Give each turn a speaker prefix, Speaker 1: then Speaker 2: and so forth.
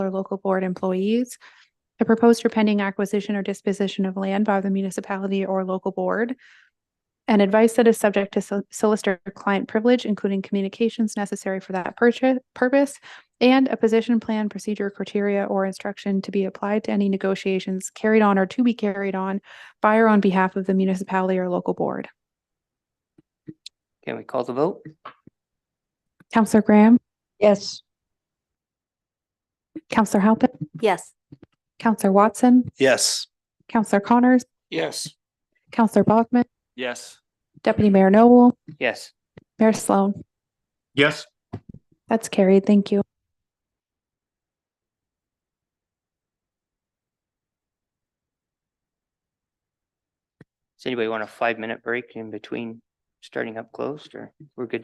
Speaker 1: or local board employees. The proposed or pending acquisition or disposition of land by the municipality or local board. And advice that is subject to sol- solicitor client privilege, including communications necessary for that purchase, purpose. And a position plan, procedure, criteria, or instruction to be applied to any negotiations carried on or to be carried on by or on behalf of the municipality or local board.
Speaker 2: Can we call the vote?
Speaker 1: Counselor Graham,
Speaker 3: Yes.
Speaker 1: Counselor Halpin,
Speaker 3: Yes.
Speaker 1: Counselor Watson,
Speaker 4: Yes.
Speaker 1: Counselor Connors,
Speaker 4: Yes.
Speaker 1: Counselor Bachman,
Speaker 4: Yes.
Speaker 1: Deputy Mayor Noble,
Speaker 2: Yes.
Speaker 1: Mayor Sloan.
Speaker 4: Yes.
Speaker 1: That's carried. Thank you.
Speaker 2: Does anybody want a five-minute break in between starting up closed or we're good?